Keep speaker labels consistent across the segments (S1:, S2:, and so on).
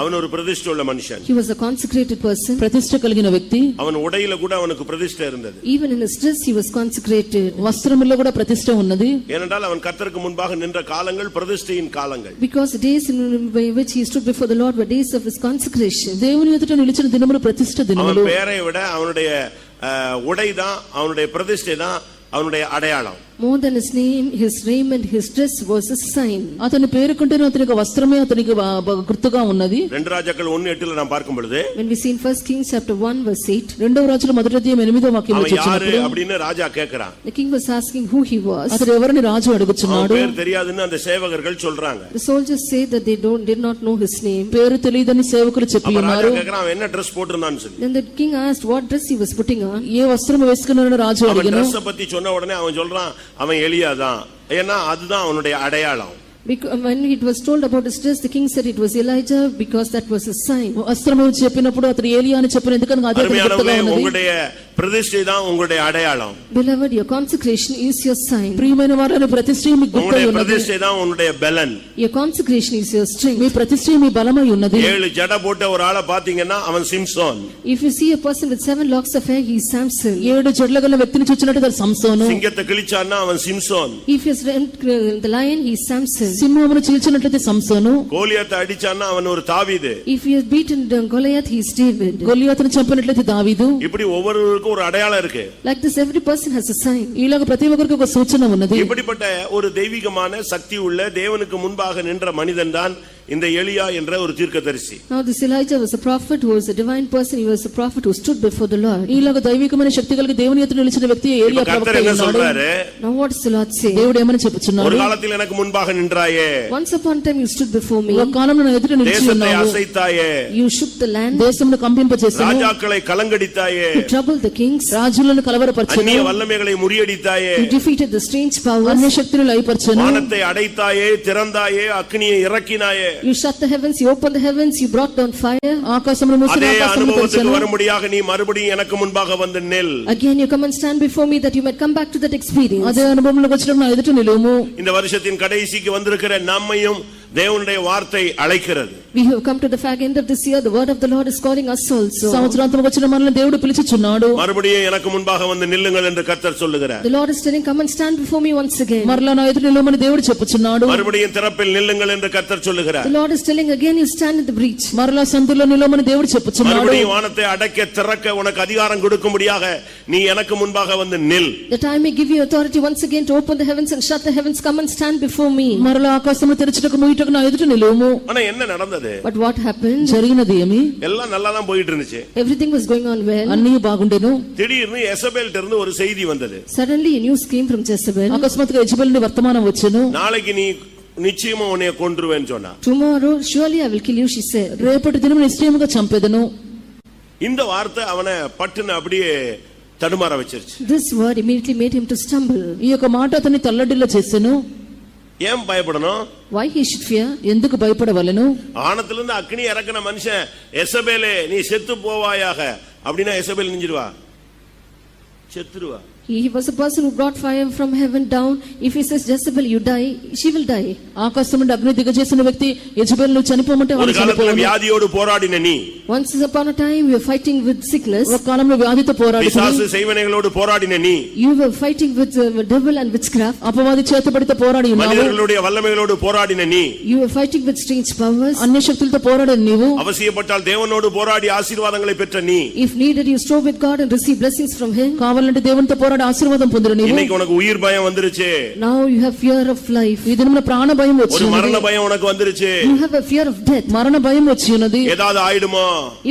S1: அவன் ஒரு பிரதிஷ்டை உள்ள மனுஷன்
S2: He was a consecrated person.
S3: ప్రతిష్ట కలిగిన వ్యక్తి
S1: அவன் உடையில கூட அவனுக்கு பிரதிஷ்டை இருந்தது
S2: Even in his dress, he was consecrated.
S3: వస్త్రములో కూడా ప్రతిష్ట ఉన్నది
S1: ஏனென்றால் அவன் கர்த்தருக்கு முன்பாக நின்ற காலங்கள் பிரதிஷ்டையின் காலங்கள்
S2: Because the days in which he stood before the Lord were days of his consecration.
S3: దేవుని ఎదుట నిలిచిన దినములు ప్రతిష్ట
S1: அவன்
S3: దినములు
S1: பெயரை விட அவனுடைய உடை தான் அவனுடைய பிரதிஷ்டை தான் அவனுடைய அடையாளம்
S2: More than his name, his raiment, his dress was a sign.
S3: అతని పేరుకుంటేనే అతని యొక్క వస్త్రమే అతనికి వా- బ- గుర్తుగా ఉన్నది
S1: ரெண்டு ராஜாக்கள் ஒன்னு எட்டுல நான் பார்க்கும் பொழுது
S2: When we see in 1 Kings chapter 1 verse 8,
S3: రెండవ రాజుల మొదటి అధ్యాయం ఎనిమిదో వాక్యం
S1: அவன் யாரு
S3: వచ్చినప్పుడు
S1: அப்படின்னு రాஜா கேக்குறான்
S2: the king was asking who he was.
S3: అతడు ఎవరిని రాజు
S1: அவன்
S3: అడుగుచున్నాడు
S1: பேர் தெரியாதுன்னு அந்த சேவகர்கள் சொல்றாங்க
S2: The soldiers say that they don't, did not know his name.
S3: పేరు తెలియదని సేవకులు చెప్పి
S1: அப்ப ராஜா
S3: ఉన్నారు
S1: கேக்குறான் அவன் என்ன ட்ரெஸ் போட்டிருந்தான்னு சொல்லி
S2: Then the king asked what dress he was putting on.
S3: ఏ వస్త్రం వేసుకున్నారని రాజు
S1: அவன்
S3: అడిగిన
S1: ட்ரெஸ் பத்தி சொன்ன உடனே அவன் சொல்றான் அவன் எளியாதான் ஏன்னா அதுதான் அவனுடைய அடையாளம்
S2: Because when it was told about his dress, the king said it was Elijah because that was his sign.
S3: వస్త్రము చెప్పినప్పుడు అతడు ఏలియా అని చెప్పిన ఎందుకనగా అదే అతనికి గుర్తుగా
S1: அருமையானவர்களே
S3: ఉన్నది
S1: உங்களுடைய பிரதிஷ்டை தான் உங்களுடைய அடையாளம்
S2: Beloved, your consecration is your sign.
S3: ప్రియమైన వారిని ప్రతిష్ట మీకు గుర్తై
S1: உங்களுடைய
S3: ఉన్నది
S1: பிரதிஷ்டை தான் உன்னுடைய பலன்
S2: Your consecration is your
S3: me
S2: strength.
S3: ప్రతిష్ట మీ బలమై ఉన్నది
S1: ஏழு ஜடை போட்ட ஒரு ஆளை பாத்தீங்கன்னா அவன் Samson
S2: If you see a person with seven locks of hair, he is Samson.
S3: ఏడు జడ్ల గల వ్యక్తిని చూచినట్టు తన సంసోను
S1: சிங்கத்தை கிழிச்சான்னா அவன் Samson
S2: If he has rent- uh, the lion, he is Samson.
S3: సింహమును చీల్చినట్లయితే సంసోను
S1: கோலியத்தை அடிச்சான்னா அவன் ஒரு தாவீது
S2: If he has beaten down Goliath, he is David.
S3: గొల్లియాతను చంపినట్లయితే దావీదు
S1: இப்படி ஒவ்வொருவருக்கும் ஒரு அடையாளம் இருக்கு
S2: Like this, every person has a sign.
S3: ఇలాగ ప్రతి ఒక్కరికి ఒక సూచన ఉన్నది
S1: இப்படிப்பட்ட ஒரு தெய்வீகமான சக்தி உள்ள தேவனுக்கு முன்பாக நின்ற மனிதன் தான் இந்த எலியா என்ற ஒரு தீர்க்கதரிசி
S2: Now this Elijah was a prophet who was a divine person. He was a prophet who stood before the Lord.
S3: ఇలాగ దైవికమైన శక్తి కలిగి దేవుని ఎదుట నిలిచిన వ్యక్తి ఏలియా
S1: இப்ப
S3: ప్రవక్త
S1: கர்த்தர் என்ன
S3: ఉన్నాడు
S1: சொல்றாரு
S2: Now what does the Lord say?
S3: దేవుడు ఏమని
S1: ஒரு
S3: చెప్పుచున్నాడు
S1: காலத்தில் எனக்கு முன்பாக நின்றாயே
S2: Once upon a time you stood before
S3: ఒక
S2: me.
S3: కాలంలో నా ఎదుట నిలిచి
S1: தேசத்தை
S3: ఉన్నావు
S1: அசைத்தாயே
S2: You shook the land.
S3: దేశమును కంపింపచేసాను
S1: ராஜாக்களை கலங்கடித்தாயே
S2: You troubled the kings.
S3: రాజులను
S1: அந்நிய
S3: కలవరపరచను
S1: வல்லமைகளை ముறியடித்தாயே
S2: You defeated the strange
S3: అన్ని
S2: powers.
S3: శక్తులు లయపరచను
S1: வானத்தை அடைத்தாயே திறந்தாயே அக்னியை இறக்கினாயே
S2: You shut the heavens. You opened the heavens. You brought down fire.
S3: ఆకాశమును మూసిన
S1: அதே
S3: ఆకాశమును
S1: அனுபவத்துக்கு
S3: తెరచను
S1: வரும்படியாக நீ மறுபடியும் எனக்கு முன்பாக வந்து நெல்
S2: Again you come and stand before me that you might come back to that experience.
S3: అదే అనుభవంలోకి వచ్చిన నా ఎదుట నిలువుము
S1: இந்த வருஷத்தின் கடைசிக்கு வந்திருக்கிற நம்மையும் தேவனுடைய வார்த்தை அழைக்கிறது
S2: We have come to the fag end of this year. The word of the Lord is calling us also.
S3: సంవత్సరాంతం వచ్చిన మనల్ని దేవుడు పిలిచిచున్నాడు
S1: மறுபடியும் எனக்கு முன்பாக வந்து நில்லுங்கள் என்று கர்த்தர் சொல்லுகிறார்
S2: The Lord is telling, come and stand before me once again.
S3: మరలా నా ఎదుట నిలువమని దేవుడు చెప్పుచున్నాడు
S1: மறுபடியும் திறப்பில் நில்லுங்கள் என்று கர்த்தர்
S2: The
S1: சொல்லுகிறார்
S2: Lord is telling again, you stand in the breach.
S3: మరలా సందులో నిలువమని దేవుడు చెప్పుచున్నాడు
S1: மறுபடியும் வானத்தை அடைக்க திறக்க உனக்கு அதிகாரம் கொடுக்கும்படியாக நீ எனக்கு முன்பாக வந்து நில்
S2: That I may give you authority once again to open the heavens and shut the heavens, come and stand before me.
S3: మరలా ఆకాశము తెరచుటకు ముయ్యుటకు నా ఎదుట నిలువము
S1: ஆனா என்ன நடந்தது
S2: But what happened?
S3: జరిగినది ఏమి
S1: எல்லாம் நல்லா தான் போயிட்டு இருந்துச்சு
S2: Everything was going on well.
S3: అన్నీ బాగుండేను
S1: திடீர்னு எசபேல்ட்ட இருந்து ஒரு செய்தி வந்தது
S2: Suddenly a news came from Jezebel.
S3: అకస్మాత్తుగా యజబెల్ నుండి వర్తమానం వచ్చెను
S1: நாளைக்கு நீ நிச்சயமா உன்னைய கொன்றுவேன்னு சொன்னா
S2: Tomorrow, surely I will kill you, she said.
S3: రేపటి దినం నిశ్చయముగా చంపెదను
S1: இந்த வார்த்தை அவனை பட்டுன்னு அப்படியே தடுமாற வச்சிருச்சு
S2: This word immediately made him to stumble.
S3: ఈ యొక్క మాట అతన్ని తల్లడిల్లా చేసెను
S1: ஏன் பயப்படணும்
S2: Why he should fear?
S3: ఎందుకు భయపడవలెను
S1: ஆனத்திலிருந்து அக்னி இறக்கின மனுஷன் எசபேலே நீ செத்து போவாயாக அப்படின்னா Jezebel நெஞ்சிருவா செத்துருவா
S2: He he was a person who brought fire from heaven down. If he says Jezebel, you die, she will die.
S3: ఆకాశం నుండి అగ్ని దిగజేసిన వ్యక్తి యజబెల్ నువ్వు చనిపోమంటే
S1: ஒரு
S3: వాడు
S1: காலத்துல
S3: చనిపోవను
S1: வியாதியோடு போராடின நீ
S2: Once upon a time, you were fighting with
S3: ఒక
S2: sickness.
S3: కాలంలో వ్యాధితో పోరాడుతూ
S1: பிசாசு செய்வனைகளோடு போராடின நீ
S2: You were fighting with uh, devil and witchcraft.
S3: అపవాది చేతబడితో పోరాడి ఉన్నావు
S1: மனிதர்களுடைய வல்லமைகளோடு போராடின நீ
S2: You were fighting with strange powers.
S3: అన్ని శక్తులతో పోరాడని నీవు
S1: அவசியப்பட்டால் தேவனோடு போராடி ஆசீர்வாதங்களை பெற்ற நீ
S2: If needed, you strove with God and receive blessings from Him.
S3: కావాలంటే దేవునితో పోరాడి ఆశీర్వాదం పొందిన నీవు
S1: இன்னைக்கு உனக்கு உயிர் பயம் வந்துருச்சு
S2: Now you have fear of life.
S3: ఈ దినమున ప్రాణ భయం వచ్చి
S1: ஒரு
S3: ఉన్నది.
S1: மரண பயம் உனக்கு வந்துருச்சு
S2: You have a fear of death.
S3: మరణ భయం వచ్చి ఉన్నది
S1: ஏதாவது ஆயிடுமோ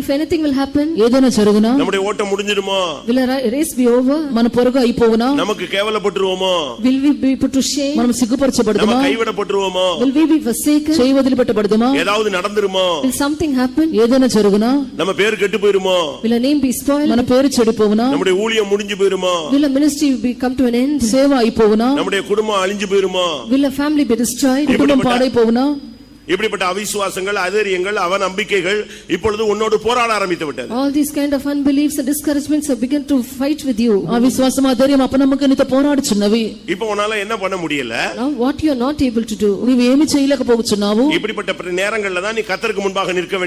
S2: If anything will happen,
S3: ఏదైనా జరుగునా
S1: நம்முடைய ஓட்டம் முடிஞ்சிடுமో
S2: will a ri- race be over?
S3: మన పొరుగు అయిపోవునా
S1: நமக்கு கேவலப்பட்டுருவோமோ
S2: Will we be put to shame?
S3: మనం
S1: நம்ம
S3: సిగ్గుపరచబడదుమా
S1: கைவிடப்பட்டுருவோமో
S2: Will we be forsaken?
S3: చేయి వదిలిపెట్టబడదుమా
S1: ஏதாவது நடந்துருமோ
S2: Will something happen?
S3: ఏదైనా జరుగునా
S1: நம்ம பேர் கெட்டு போயிருமோ
S2: Will a name be spoiled?
S3: మన పేరు చెడిపోవునా
S1: நம்முடைய ஊழியம் முடிஞ்சு போயிருமோ
S2: Will a ministry be come to an end?
S3: సేవ అయిపోవునా
S1: நம்முடைய குடும்பம் அழிஞ்சு போயிருமோ
S2: Will a family be destroyed?
S3: కుటుంబం పాడైపోవునా
S1: இப்படிப்பட்ட அவிசுவாசங்கள் அதரியங்கள் அவநம்பிக்கைகள் இப்பொழுது உன்னோடு போராட ஆரம்பித்து விட்டது
S2: All these kind of unbeliefs and discouragements have begun to fight with you.
S3: ఆ విశ్వాసం ఆ ధైర్యం అపనమ్మకం నీతో పోరాడుచున్నవి
S1: இப்ப உன்னால என்ன பண்ண முடியல
S2: Now what you are not able to do.
S3: నీవేమి చేయలేకపోతున్నావు
S1: இப்படிப்பட்ட நேரங்கள்ல தான் நீ கத்தருக்கு முன்பாக நிற்க வேண்டும்